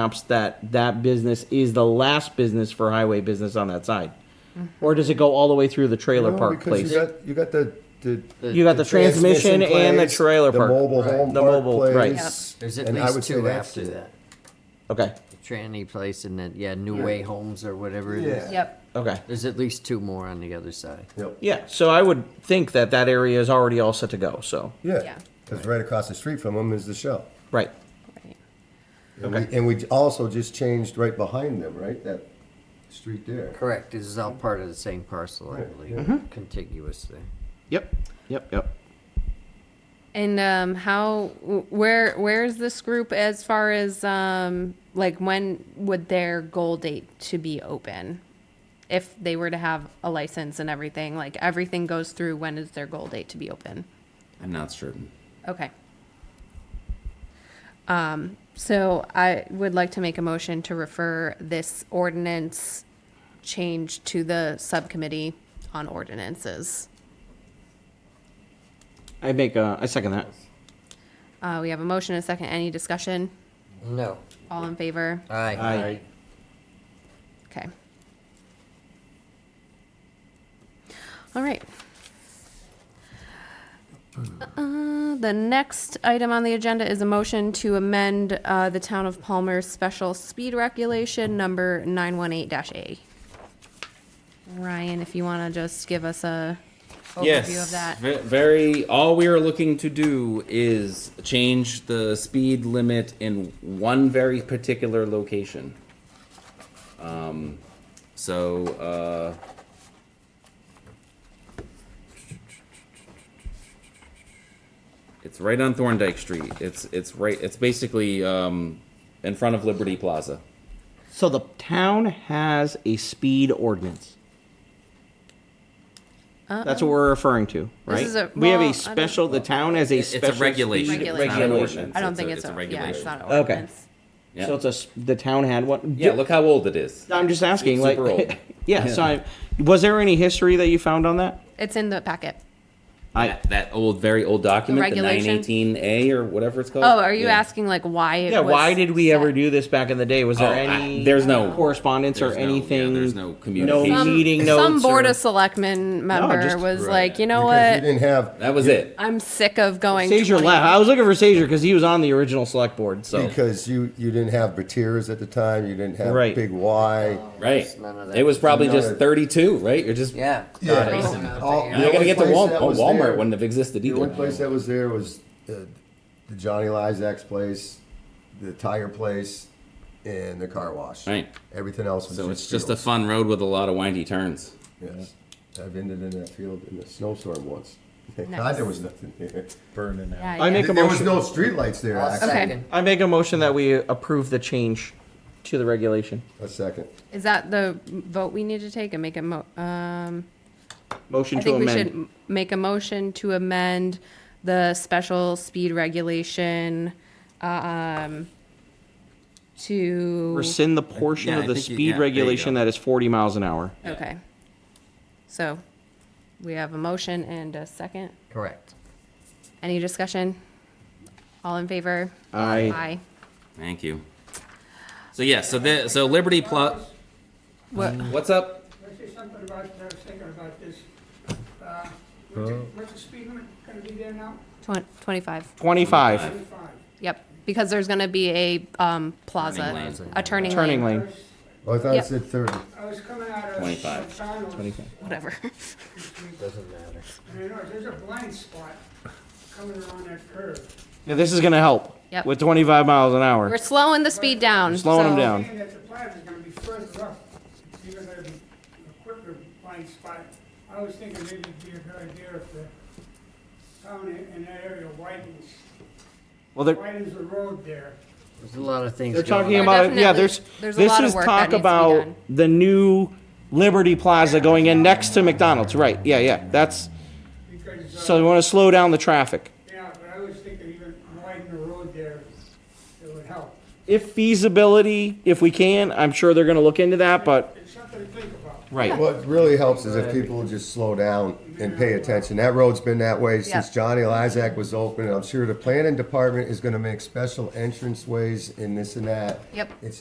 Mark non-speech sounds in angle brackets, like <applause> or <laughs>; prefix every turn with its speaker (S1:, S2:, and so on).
S1: maps that that business is the last business for highway business on that side? Or does it go all the way through the trailer
S2: No,
S1: park
S2: because
S1: place?
S2: You got, you got the, the.
S1: You got the transmission and the
S2: plays,
S1: trailer park.
S2: The mobile
S3: Right.
S2: home
S1: The
S2: park
S1: mobile, right.
S2: plays.
S3: There's at
S2: and I would
S3: least
S2: say
S3: two
S2: that's
S3: after
S2: it.
S3: that.
S1: Okay,
S3: The tranny place and then, yeah, New Way Homes or whatever it
S2: Yeah.
S3: is.
S4: Yep.
S1: okay.
S3: There's at least two more on the other side.
S2: Yep.
S1: Yeah, so I would think that that area is already all set to go, so,
S2: Yeah,
S4: Yeah.
S2: because right across the street from them is the Shell.
S1: right.
S4: Right.
S2: And we- And we also just changed right behind them, right? That street there.
S3: Correct, this is all part of the same parcel, I
S1: Mm-hmm.
S3: believe, contiguous there.
S1: Yep, yep, yep.
S4: And um, how? wh- Where? Where is this group as far as um, like when would their goal date to be open? If they were to have a license and everything, like everything goes through, when is their goal date to be open?
S5: I'm not certain.
S4: Okay. Um, so I would like to make a motion to refer this ordinance change to the subcommittee on ordinances.
S1: I make, uh, I second that.
S4: Uh, we have a motion and a second. Any discussion?
S3: No.
S4: All in favor?
S3: Aye.
S1: I,
S4: Okay. All right. Uh, The next item on the agenda is a motion to amend uh, the Town of Palmer's special speed regulation number 918-A. Ryan, if you want to just give us a overview of that.
S5: ve- very. All we are looking to do is change the speed limit in one very particular location. Um, so, uh, it's right on Thorndike Street. It's it's right. It's basically um, in front of Liberty Plaza.
S1: so the town has a speed ordinance. That's what we're referring to, right?
S4: is a-
S1: We have
S4: well, I
S1: a
S4: don't-
S1: special, the town has a
S5: It's
S1: special.
S5: a regulation.
S1: speed
S5: It's
S4: Regulation.
S5: not an ordinance.
S4: I don't
S5: It's
S4: think
S5: a,
S4: it's,
S5: a
S4: a- yeah, it's
S5: regulation.
S4: not an
S1: Okay.
S4: ordinance.
S5: Yeah.
S1: So it's a, s- the town had one?
S5: yeah, look how old it is.
S1: I'm just asking, like,
S5: Super old.
S1: <laughs> yeah, so I, was there any history that you found on that?
S4: It's in the packet.
S1: I,
S5: that, that old, very old document, the nine
S4: regulation?
S5: eighteen A or whatever it's called.
S4: Oh, are you
S5: Yeah.
S4: asking like why it
S1: yeah,
S4: was
S1: why did we ever
S4: set?
S1: do this back in the day? Was there
S5: Oh, I-
S1: any?
S5: there's no-
S1: Correspondence or
S5: there's no- yeah,
S1: anything?
S5: there's no communication. Um,
S1: No
S5: Some-
S1: meeting notes?
S4: some board
S1: or-
S4: of selectmen member
S1: just-
S4: was
S5: Right.
S4: like, you know
S2: Because you
S4: what?
S2: didn't have,
S5: That was it.
S4: I'm sick of going.
S1: Sager
S4: 20
S1: left. I was looking for Sager because he was on the original select board, so.
S2: because you, you didn't have Bertiers at the time, you didn't have
S1: Right.
S2: Big Y.
S5: Right.
S3: There's none of that.
S5: It was probably
S2: None of
S5: just
S2: it.
S5: thirty-two, right? You're just
S3: Yeah.
S2: Yeah. All-
S3: You're
S2: the
S5: You're gonna
S2: only
S5: get to
S2: place
S5: Wal-
S2: that
S5: oh,
S2: was
S5: Walmart
S2: there-
S5: wouldn't have existed
S2: The only place
S5: either.
S2: that was there was uh, the Johnny Lizak's place, the tire place, and the car wash.
S5: Right.
S2: Everything else was
S5: So
S2: just
S5: it's just a
S2: fields.
S5: fun road with a lot of windy turns.
S2: Yes. I've ended in that field in a snowstorm once. <laughs> Thank
S4: Nice.
S2: God there was nothing there.
S6: burning out.
S4: Yeah,
S1: I
S4: yeah.
S1: make a
S2: There was
S1: motion.
S2: no streetlights there,
S3: I'll
S2: actually.
S4: Okay.
S3: second.
S1: I make a motion that we approve the change to the regulation.
S2: A second.
S4: Is that the vote we need to take and make a mo? Um,
S1: Motion
S4: I
S1: to
S4: think we should
S1: amend.
S4: m- make a motion to amend the special speed regulation, um, to
S1: Rescind the portion
S5: Yeah,
S1: of
S5: I
S1: the
S5: think you-
S1: speed
S5: yeah, there you
S1: regulation
S5: go.
S1: that is forty miles an hour.
S4: okay. So we have a motion and a second.
S3: Correct.
S4: Any discussion? All in favor?
S1: Aye.
S4: Aye.
S5: Thank you. So yeah, so the, so Liberty Plaza.
S4: What?
S5: what's up?
S7: Can I say something about, I was thinking about this. Uh, What's the- what's the speed limit gonna be there now?
S4: Twen- twenty-five.
S1: Twenty-five,
S7: Twenty-five.
S4: Yep, because there's gonna be a, um, plaza,
S5: lane.
S4: a turning
S1: turning
S4: lane,
S1: lane.
S2: Oh, I thought
S4: Yeah.
S2: it said thirty.
S7: I was coming out of
S5: 25.
S7: McDonald's.
S4: whatever. <laughs>
S3: Doesn't matter.
S7: And I know, there's a blind spot coming around that curve.
S1: Yeah, this is gonna help
S4: Yep.
S1: with twenty-five miles an hour.
S4: We're slowing the speed down.
S1: Slowing 'em
S4: so-
S1: down.
S7: Saying that the plaza's gonna be further up, it's even gonna be a quicker blind spot. I was thinking maybe it'd be a good idea if the town in in that area widens,
S1: Well, they're,
S7: widens the road there.
S3: There's a lot of things.
S1: They're
S3: going
S1: talking
S3: on.
S1: about yeah.
S4: definitely-
S1: There's,
S4: there's a
S1: this
S4: lot of
S1: is
S4: work that
S1: talk
S4: needs to be
S1: about
S4: done.
S1: the new Liberty Plaza going in next to McDonald's. Right? Yeah, yeah. That's
S7: Because,
S1: so
S7: uh,
S1: we want to slow down the traffic
S7: yeah, but I was thinking even widen the road there, it would help.
S1: if feasibility, if we can. I'm sure they're going to look into that, but
S7: It's something to think about.
S1: Right.
S2: What really helps is if people just slow down and pay attention. That road's been that way since
S4: Yeah.
S2: Johnny Lizak was open. and I'm sure the planning department is gonna make special entrance ways and this and that.
S4: Yep.
S2: It's